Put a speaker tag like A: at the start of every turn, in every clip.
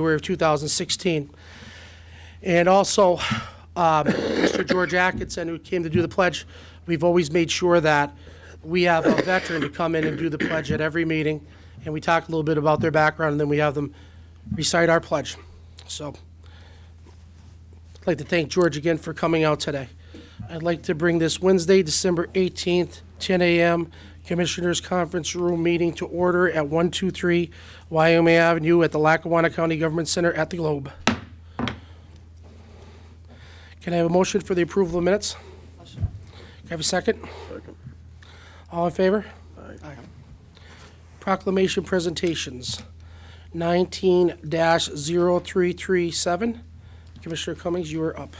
A: February of 2016. And also, um, Mr. George Atkinson, who came to do the pledge, we've always made sure that we have a veteran to come in and do the pledge at every meeting, and we talk a little bit about their background, and then we have them recite our pledge. So I'd like to thank George again for coming out today. I'd like to bring this Wednesday, December 18th, 10 a.m., Commissioners Conference Room meeting to order at 123 Wyoming Avenue at the Lackawanna County Government Center at the Globe. Can I have a motion for the approval of minutes? Can I have a second? All in favor? Aye. Proclamation presentations, 19-0337. Commissioner Cummings, you are up.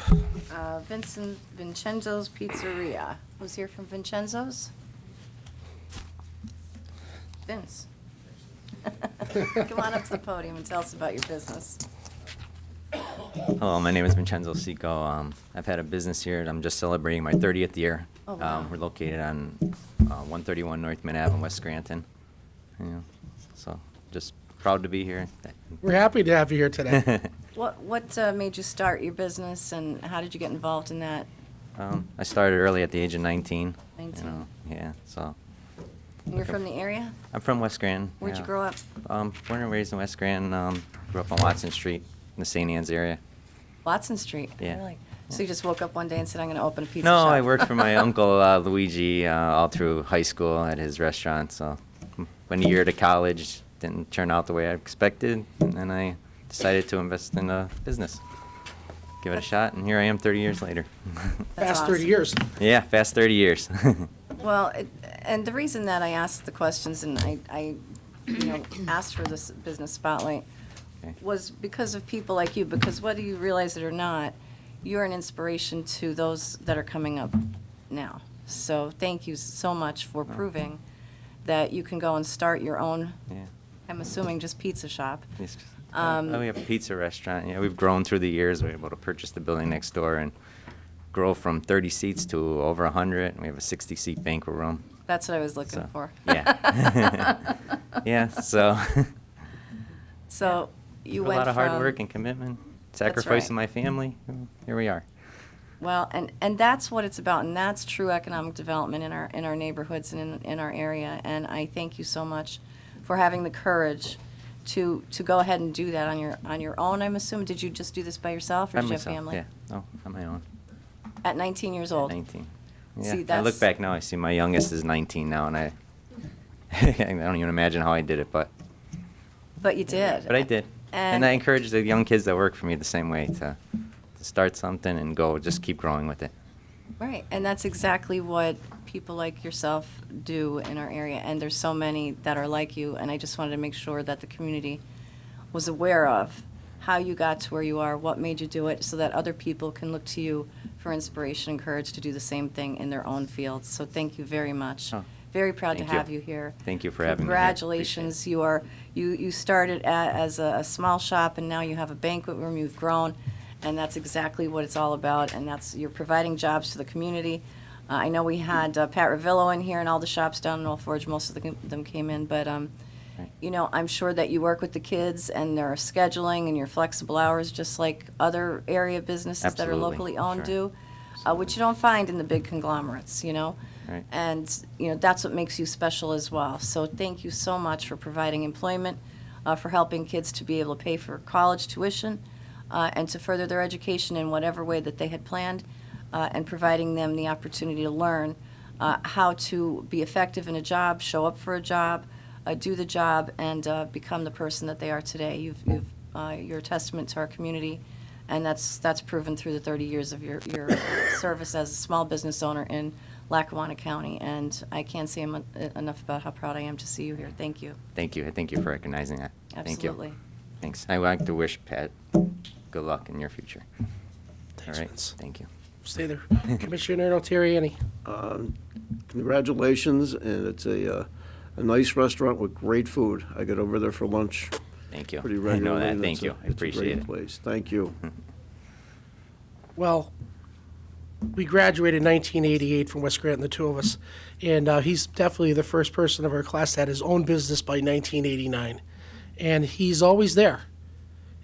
B: Uh, Vincent Vincenzo's Pizzeria. Who's here from Vincenzo's? Vince. Come on up to the podium and tell us about your business.
C: Hello, my name is Vincenzo Seco. Um, I've had a business here. and I'm just celebrating my 30th year.
B: Oh,
C: Um,
B: wow.
C: We're located on uh, 131 North Main Ave in West Scranton. Yeah, so just proud to be here.
A: We're happy to have you here today.
B: What, what uh, made you start your business and how did you get involved in that?
C: Um, I started early at the age of 19. you
B: 19.
C: know, Yeah, so
B: And You're from the area?
C: I'm from West Scranton.
B: Where'd you
C: yeah.
B: grow up?
C: Um, Born and raised in West Scranton. um, Grew up on Watson Street in the St. Anne's area.
B: Watson Street?
C: Yeah.
B: Really? So you just woke up one day and said, I'm going to open a pizza
C: No,
B: shop?
C: I worked for my uncle uh, Luigi uh, all through high school at his restaurant. So, went a year to college, didn't turn out the way I expected, and then I decided to invest in a business, give it a shot, and here I am 30 years later.
B: That's
A: Past 30
B: awesome.
A: years.
C: yeah, fast 30 years.
B: Well, it- and the reason that I asked the questions and I, I, you know, asked for this business spotlight
C: Okay.
B: was because of people like you, because whether you realize it or not, you're an inspiration to those that are coming up now. So thank you so much for proving that you can go and start your own,
C: yeah.
B: I'm assuming just pizza shop.
C: Yes.
B: Um,
C: oh, we have a pizza restaurant. Yeah, we've grown through the years. We were able to purchase the building next door and grow from 30 seats to over 100. And we have a 60 seat banquet room.
B: That's what I was looking
C: So,
B: for.
C: yeah. Yeah, so
B: So you
C: a
B: went
C: lot of hard
B: from-
C: work and commitment,
B: right.
C: sacrificing my family. and Here we are.
B: Well, and, and that's what it's about, and that's true economic development in our, in our neighborhoods and in, in our area. And I thank you so much for having the courage to, to go ahead and do that on your, on your own, I'm assuming. Did you just do this by yourself, or
C: By
B: did you have
C: myself,
B: family?
C: Yeah, no, on my own.
B: At 19 years old?
C: 19.
B: See,
C: Yeah, I
B: that's-
C: look back now. I see my youngest is 19 now, and I I don't even imagine how I did it, but
B: But you did.
C: but I did.
B: And-
C: And I encourage the young kids that work for me the same way to to start something and go, just keep growing with it.
B: Right, and that's exactly what people like yourself do in our area, and there's so many that are like you, and I just wanted to make sure that the community was aware of how you got to where you are, what made you do it, so that other people can look to you for inspiration and courage to do the same thing in their own fields. So thank you very much.
C: Oh,
B: Very proud to
C: thank you.
B: have you here.
C: Thank you for having me here. Appreciate it.
B: Congratulations, you are, you, you started a- as a, a small shop, and now you have a banquet room, you've grown, and that's exactly what it's all about, and that's, you're providing jobs to the community. Uh, I know we had uh, Pat Ravillo in here, and all the shops down in Old Forge, most of the- them came in, but, um,
C: Right.
B: you know, I'm sure that you work with the kids, and their scheduling, and your flexible hours, just like other area businesses that are
C: Absolutely,
B: locally owned
C: sure.
B: do, uh, which you don't find in the big conglomerates, you know?
C: Right.
B: And, you know, that's what makes you special as well. So thank you so much for providing employment, uh, for helping kids to be able to pay for college tuition, uh, and to further their education in whatever way that they had planned, uh, and providing them the opportunity to learn uh, how to be effective in a job, show up for a job, uh, do the job, and uh, become the person that they are today. You've, you've, uh, you're a testament to our community, and that's, that's proven through the 30 years of your, your service as a small business owner in Lackawanna County. And I can't say em- enough about how proud I am to see you here. Thank you.
C: Thank you. Thank you for recognizing that. Thank you.
B: Absolutely.
C: Thanks. I would like to wish Pat good luck in your future.
A: Thanks,
C: All right.
A: Vince.
C: Thank you.
A: Stay there. Commissioner Notarianni.
D: Congratulations, and it's a, uh, a nice restaurant with great food. I get over there for lunch
C: Thank you.
D: pretty
C: I know
D: regularly.
C: that.
D: and
C: Thank
D: it's a-
C: you. I appreciate
D: It's a
C: it.
D: great place. Thank you.
A: Well, we graduated in 1988 from West Granton, the two of us, and uh, he's definitely the first person of our class that had his own business by 1989, and he's always there.